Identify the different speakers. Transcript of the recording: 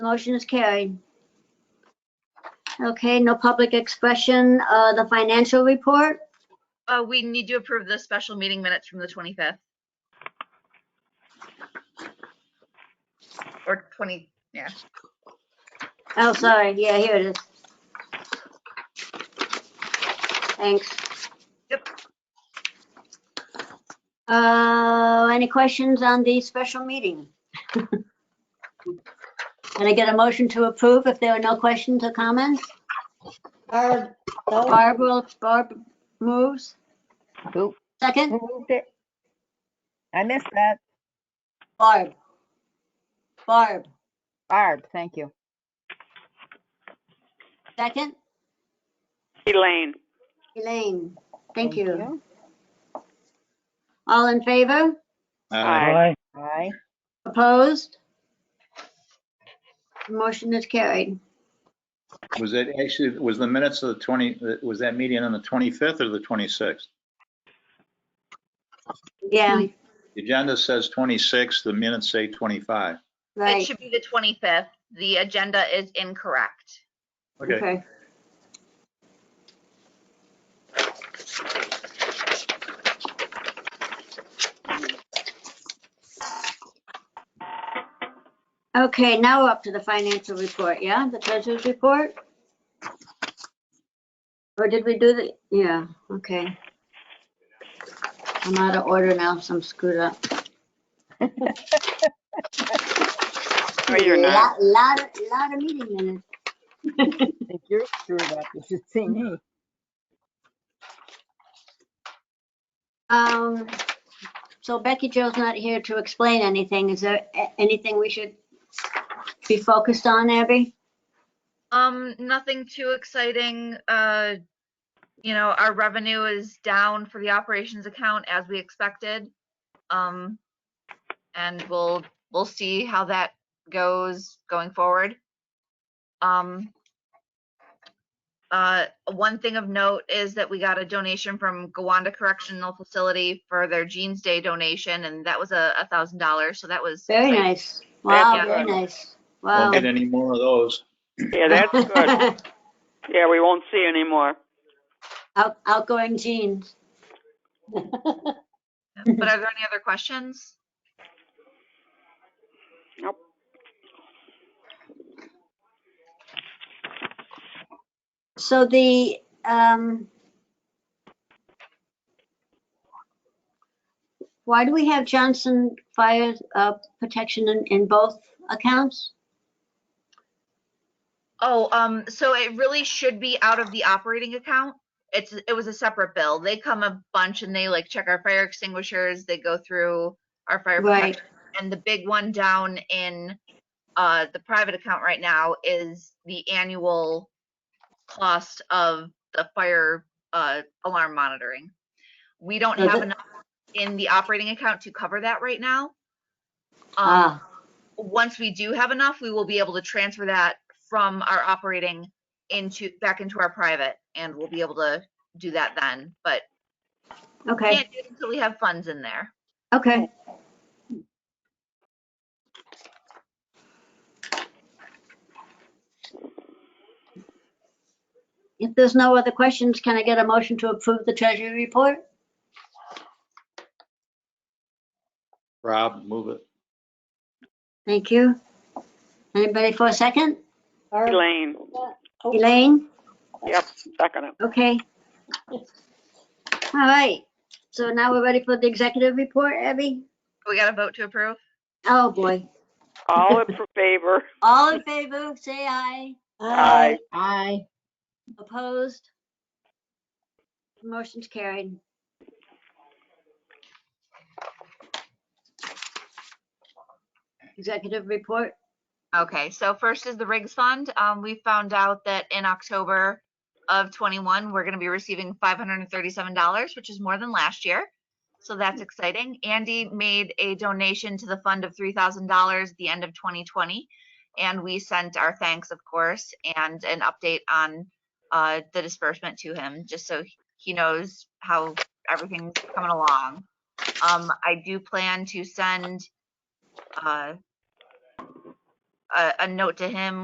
Speaker 1: Motion is carried. Okay, no public expression, uh, the financial report.
Speaker 2: Uh, we need to approve the special meeting minutes from the 25th. Or 20, yeah.
Speaker 1: Oh, sorry, yeah, here it is. Thanks.
Speaker 2: Yep.
Speaker 1: Uh, any questions on the special meeting? Can I get a motion to approve if there are no questions or comments?
Speaker 3: Barb, no,
Speaker 1: Barb will, Barb moves.
Speaker 3: Who?
Speaker 1: Second,
Speaker 3: who moved it? I missed that.
Speaker 1: Barb. Barb,
Speaker 3: Barb, thank you.
Speaker 1: second,
Speaker 4: Elaine.
Speaker 1: Elaine, thank you. All in favor?
Speaker 5: Uh,
Speaker 4: Aye.
Speaker 3: Aye.
Speaker 1: Opposed? Motion is carried.
Speaker 5: Was that actually, was the minutes of the 20, was that meeting on the 25th or the 26th?
Speaker 1: Yeah,
Speaker 5: The agenda says 26, the minutes say 25.
Speaker 2: It
Speaker 1: right.
Speaker 2: should be the 25th. The agenda is incorrect.
Speaker 5: Okay,
Speaker 1: Okay, now we're up to the financial report, yeah, the treasurer's report? Or did we do the, yeah, okay. I'm out of order now, so I'm screwed up.
Speaker 4: No, you're not.
Speaker 1: Lot, lot, of- lot of meeting minutes.
Speaker 3: If you're screwed up, you should see me.
Speaker 1: Um, so Becky Jo's not here to explain anything. Is there a- anything we should be focused on, Abby?
Speaker 2: Um, nothing too exciting. Uh, you know, our revenue is down for the operations account as we expected. Um, and we'll, we'll see how that goes going forward. Um, uh, one thing of note is that we got a donation from Gowanda Correctional Facility for their Jeans Day donation, and that was a, a thousand dollars, so that was.
Speaker 1: Very
Speaker 2: exciting.
Speaker 1: nice. Wow,
Speaker 2: Yeah.
Speaker 1: very nice. Wow.
Speaker 5: won't get any more of those.
Speaker 4: Yeah, that's good. Yeah, we won't see anymore.
Speaker 1: Out, outgoing genes.
Speaker 2: But are there any other questions?
Speaker 4: Nope.
Speaker 1: So the, um, why do we have Johnson Fire, uh, protection in, in both accounts?
Speaker 2: Oh, um, so it really should be out of the operating account. It's, it was a separate bill. They come a bunch and they like check our fire extinguishers, they go through our fire
Speaker 1: Right.
Speaker 2: protection. And the big one down in, uh, the private account right now is the annual cost of the fire, uh, alarm monitoring. We don't
Speaker 1: So
Speaker 2: have
Speaker 1: the-
Speaker 2: enough in the operating account to cover that right now. Um,
Speaker 1: Ah,
Speaker 2: once we do have enough, we will be able to transfer that from our operating into, back into our private, and we'll be able to do that then, but
Speaker 1: okay.
Speaker 2: can't do it until we have funds in there.
Speaker 1: Okay. If there's no other questions, can I get a motion to approve the treasury report?
Speaker 5: Rob, move it.
Speaker 1: Thank you. Anybody for a second?
Speaker 3: Barb,
Speaker 4: Elaine.
Speaker 1: Elaine?
Speaker 4: Yep, second it.
Speaker 1: Okay. All right. So now we're ready for the executive report, Abby?
Speaker 2: We got a vote to approve?
Speaker 1: Oh, boy.
Speaker 4: All in favor?
Speaker 1: All in favor, say aye.
Speaker 4: Aye.
Speaker 3: Aye.
Speaker 1: Opposed? Motion's carried. Executive report,
Speaker 2: Okay, so first is the Riggs Fund. Um, we found out that in October of twenty-one, we're gonna be receiving five hundred and thirty-seven dollars, which is more than last year. So that's exciting. Andy made a donation to the fund of three thousand dollars at the end of twenty twenty. And we sent our thanks, of course, and an update on, uh, the disbursement to him, just so he knows how everything's coming along. Um, I do plan to send, uh, a, a note to him